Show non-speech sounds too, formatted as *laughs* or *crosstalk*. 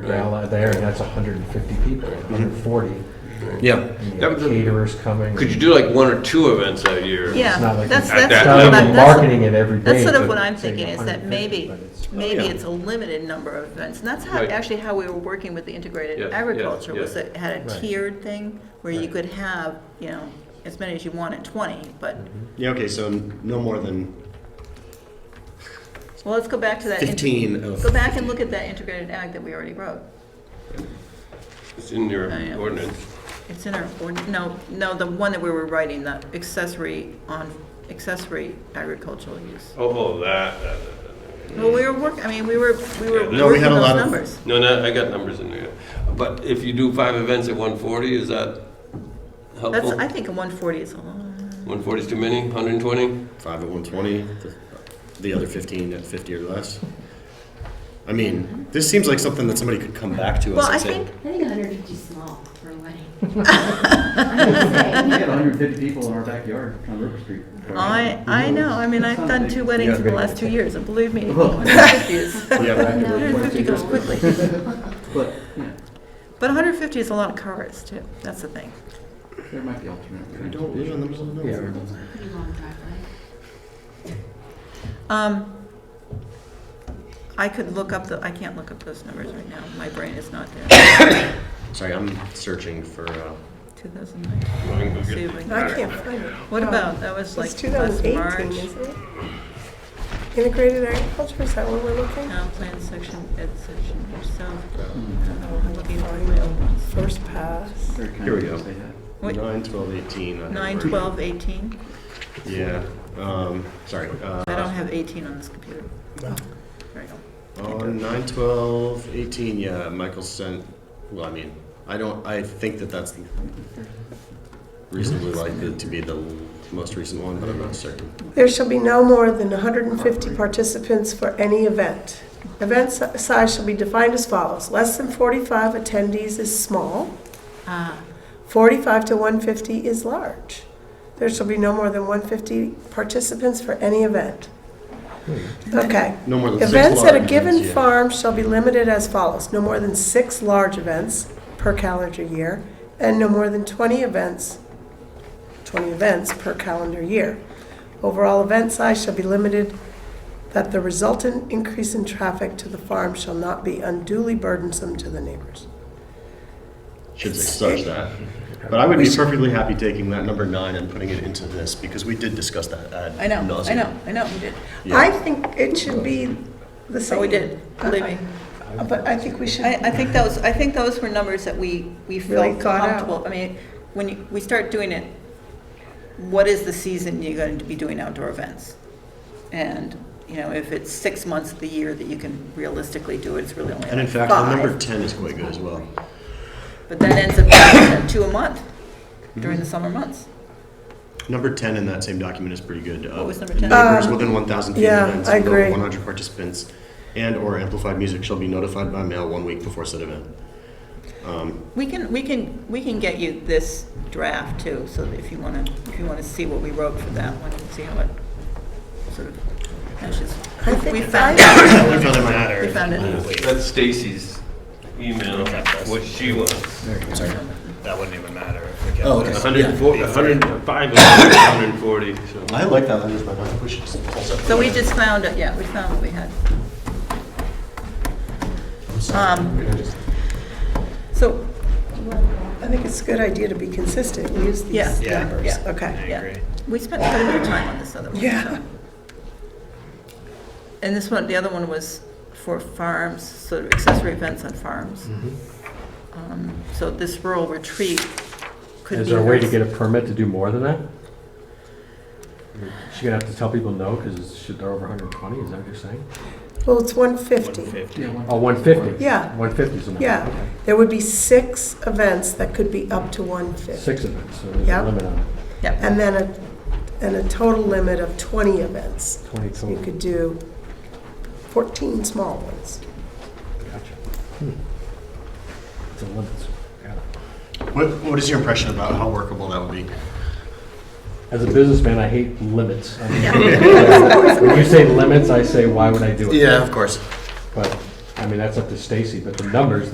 ground out there, and that's 150 people, 140. Yeah. And you That have was a- caterers coming. Could you do like one or two events a year? It's not Yeah, like that's, you- At that's. that It's not what level. I'm- like that's- marketing it every day. That's sort of but what I'm saying thinking, is that 150, maybe, but it's- maybe yeah. it's a limited number of events. And that's how, Right. actually how we were working with the Yeah, integrated yeah, agriculture, was yeah. it had a Right. tiered thing where you Right. could have, you know, as many as you want at twenty, but, Mm-hmm. Yeah, okay, so no more than Uh, well, let's go back to that. inter- 15 of. Go back and look at that integrated ag that we already wrote. It's in your Oh, yeah. ordinance. It's in our, ord- no, no, the one that we were writing, the accessory on, accessory agricultural use. Oh, oh, that, that, that. Well, we were work, I mean, we were, we were Yeah, no, we working had a those lot of- numbers. No, no, I got numbers in there. But if you do five events at one forty, is that That's, helpful? I think a one forty is a lot. One forty is too many, hundred and twenty? 5 at 120, the, the other 15 at 50 or less. I mean, this seems like something that somebody could come back to us Well, and I say, think, I think 150 is small for a wedding. I'm just saying. We had 150 people in our backyard on River Street. I, I know, I mean, I've done two weddings in the last two years, and believe *laughs* me, Well. 150 is, *laughs* yeah, 150 goes quickly. *laughs* But, yeah, But 150 is a lot of cars, too, that's the thing. there might be alternate. we don't live in the middle of nowhere. Yeah. Pretty long driveway. Um, I could look up the, I can't look up those numbers right now, my brain is not there. Sorry, I'm searching for. Uh, 2009, see if we I can- can't find it. What about, that was like It's last 2018, March, isn't it? Integrated agriculture, is that what we're looking? town plan section, ed section, yourself. I don't know, I'm looking for my old ones. First pass. Here we go. Wait. 9, 12, 18. I don't 9, remember. 12, 18, Yeah. Um, sorry. Uh, I don't have 18 on this computer. Oh, There you go. On 9, 12, 18, yeah, Michael sent. Well, I mean, I don't. I think that that's reasonably likely to be the l- most recent one, but I'm not certain. There shall be no more than 150 participants for any event. Event si- size shall be defined as follows. Less than 45 attendees is small. Ah, 45 to 150 is large. There shall be no more than 150 participants for any event. Okay. No more than Events six at a large given events, yeah. farm shall be limited as follows. No more than six large events per calendar year, and no more than 20 events, 20 events per calendar year. Overall event size shall be limited, that the resultant increase in traffic to the farm shall not be unduly burdensome to the neighbors. Should say such that. But I would be perfectly happy taking that number nine and putting it into this because we did discuss that. Ad I know, I nauseam. know, I know, we did. I think it should be the same. Uh, So Oh, we did, believe me. But I think we should. I, I think those, I think those were numbers that we, we Really felt thought out. comfortable. I mean, when you, we start doing it, what is the season you're going to be doing outdoor events? And, you know, if it's six months of the year that you can realistically do it, it's really only And in like fact, the number five. ten is quite good as well. But that ends up being two a month during the summer months. Number ten in that same document is pretty good. Uh, was number 10? Neighbors Um, within one thousand feet yeah, of events I with over agree. one hundred participants and/or amplified music shall be notified by mail one week before said event. Um, We can, we can, we can get you this draft too, so that if you want to, if you want to see what we wrote for that one, and see how it sort of matches. I think We if found I- it. *coughs* I found it in my ad. We found it. That's Stacy's email, what she wants. That wouldn't even matter if we kept Oh, this. okay. hundred and forty, hundred and five, hundred and forty, so. I like that language, but I think we should just also. So we just found it, yeah, we found what we had. Um, So, I think it's a good idea to be consistent, and use Yeah. these Yeah. numbers. Yeah. Okay. I yeah, agree. we spent quite a bit of time on this other one. Yeah. so. And this one, the other one was for farms, sort of accessory events on farms. Mm-hmm. Um, So this rural retreat could be. Is there a way to very- get a permit to do more than that? She's gonna have to tell people no, because should they're over 120, is that what you're saying? Well, it's 150. 150. Oh, 150? Yeah. 150 is the number. Yeah. okay. There would be six events that could be up to 150. Six events, so there's a Yeah. limit on it. Yeah. And then a, and a total limit of 20 events. 20 So you total. could do 14 small ones. Gotcha. Hmm. It's a limit. so- got it. What, what is your impression about how workable that would be? As a businessman, I hate limits. I mean, When you say limits, I say, why would I do it? of course. But, I mean, that's up to Stacy, but the numbers,